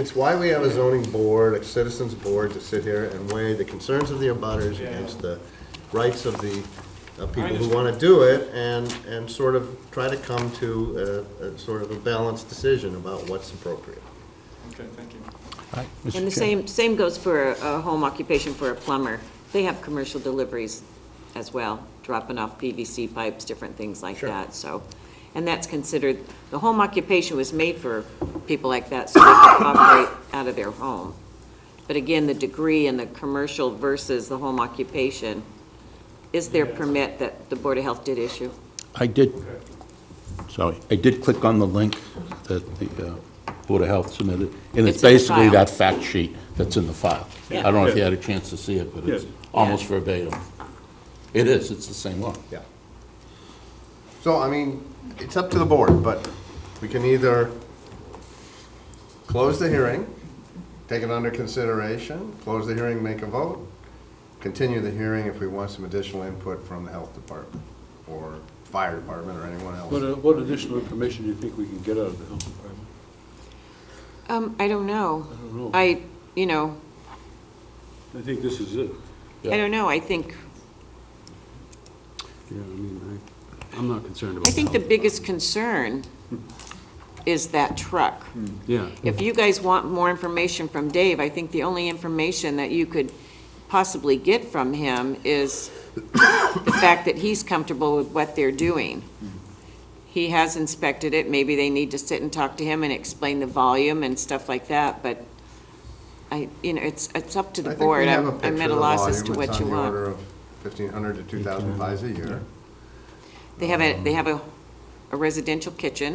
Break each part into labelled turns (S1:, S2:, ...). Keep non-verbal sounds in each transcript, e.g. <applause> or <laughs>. S1: It's why we have a zoning board, a citizens board to sit here and weigh the concerns of the abutters
S2: Yeah.
S1: against the rights of the uh, people who
S2: understand.
S1: want to do it and, and sort of try to come to a, a sort of a balanced decision about what's appropriate.
S2: Okay, thank you.
S3: And the same, same goes for a a home occupation for a plumber. They have commercial deliveries as well, dropping off PVC pipes, different things like that, so. And that's considered, the home occupation was made for people like that, so they could operate out of their home. But again, the degree and the commercial versus the home occupation, is there permit that the Board of Health did issue?
S4: I did, sorry, I did click on the link that the uh, Board of Health submitted, and it's
S3: It's in the
S4: basically
S3: file.
S4: that fact sheet that's in the file. I don't know if you
S2: Yeah.
S4: had a chance to see it, but it's
S2: Yeah.
S4: almost verbatim. It is, it's the same law.
S1: Yeah. So, I mean, it's up to the board, but we can either close the hearing, take it under consideration, close the hearing, make a vote, continue the hearing if we want some additional input from the health department or fire department or anyone
S5: What,
S1: else.
S5: uh, what additional information do you think we can get out of the health department?
S3: Um, I don't know.
S5: I don't know.
S3: I, you know,
S5: I think this is it.
S3: I don't know, I think
S5: Yeah, I mean, I, I'm not concerned about
S3: I think the biggest concern is that truck.
S5: Yeah.
S3: If you guys want more information from Dave, I think the only information that you could possibly get from him is the fact that he's comfortable with what they're doing. He has inspected it, maybe they need to sit and talk to him and explain the volume and stuff like that, but I, you know, it's, it's up to the board. I'm I'm at a loss as to what you want.
S1: Fifteen hundred to two thousand pies a year.
S3: They have a, they have a a residential kitchen.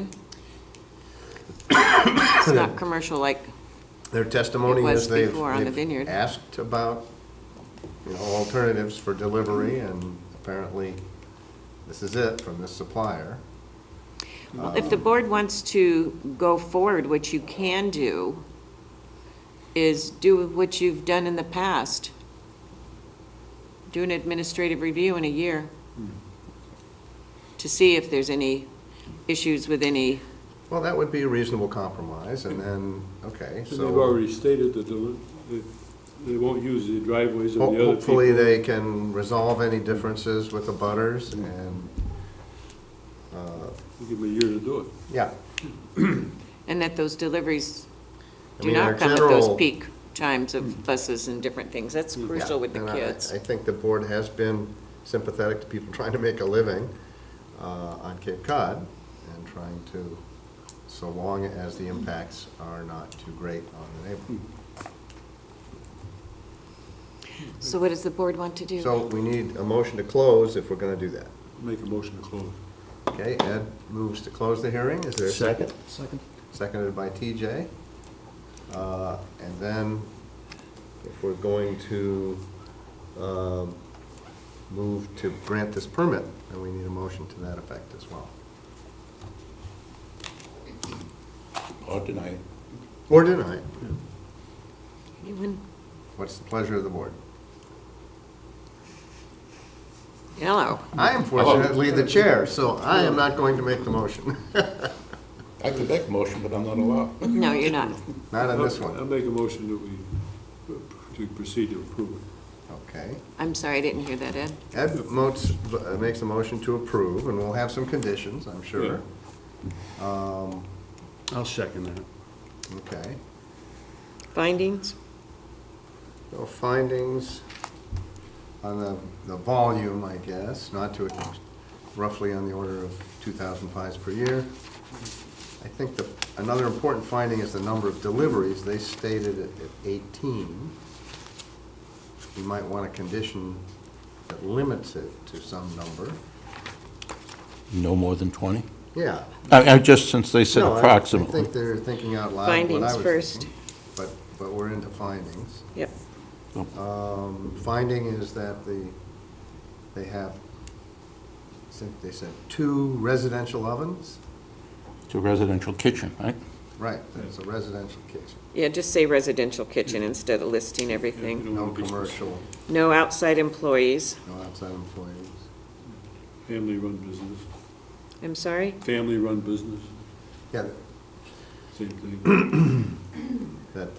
S3: It's not commercial like
S1: Their testimony
S3: It was
S1: is they've,
S3: before on the
S1: they've
S3: vineyard.
S1: asked about, you know, alternatives for delivery, and apparently this is it from this supplier.
S3: Well, if the board wants to go forward, what you can do is do what you've done in the past. Do an administrative review in a year to see if there's any issues with any,
S1: Well, that would be a reasonable compromise, and then, okay,
S5: And they've
S1: so
S5: already stated that they'll- that they won't use the driveways of the
S1: ho-
S5: other people.
S1: hopefully they can resolve any differences with the butters, and,
S5: Give them a year to do it.
S1: yeah.
S3: and that those deliveries
S1: I
S3: do
S1: mean, our
S3: not come at those
S1: general-
S3: peak times of buses and different things. That's
S1: Mm. Yeah,
S3: crucial with the
S1: and I-
S3: kids.
S1: I think the board has been sympathetic to people trying to make a living uh, on Cape Cod and trying to, so long as the impacts are not too great on the neighborhood.
S3: So what does the board want to do?
S1: So we need a motion to close if we're going to do that.
S5: Make a motion to close.
S1: Okay, Ed moves to close the hearing. Is there a second?
S6: Second.
S1: Seconded by TJ. Uh, And then if we're going to um, move to grant this permit, then we need a motion to that effect as well.
S4: Or deny it.
S1: Or deny it.
S3: Anyone?
S1: What's the pleasure of the board?
S3: Hello.
S1: I am fortunately the chair, so I am not going to make the motion. <laughs>
S4: I could make a motion, but I'm not allowed.
S3: No, you're not.
S1: Not on this
S5: I'll
S1: one.
S5: make a motion that we, to proceed to approve it.
S1: Okay.
S3: I'm sorry, I didn't hear that, Ed.
S1: Ed motes, uh, makes a motion to approve, and we'll have some conditions, I'm sure. Um,
S6: I'll second that.
S1: Okay.
S3: Findings?
S1: No findings on the, the volume, I guess, not to, ex- roughly on the order of 2,000 pies per year. I think the, another important finding is the number of deliveries. They stated it at 18. You might want a condition that limits it to some number.
S4: No more than 20?
S1: Yeah.
S4: I, I just, since they said
S1: No, I- I
S4: approximately.
S1: think they're thinking out loud what I
S3: Findings
S1: was
S3: first.
S1: thinking. But, but we're into findings.
S3: Yep.
S1: Um, Finding is that the, they have, I think they said, two residential ovens?
S4: It's a residential kitchen, right?
S1: Right, there's a residential kitchen,
S3: Yeah, just say residential kitchen instead of listing everything.
S5: Mm-hmm.
S1: no commercial,
S3: No outside employees.
S1: no outside employees.
S5: Family-run business,
S3: I'm sorry?
S5: family-run business,
S1: Yeah,
S5: same thing.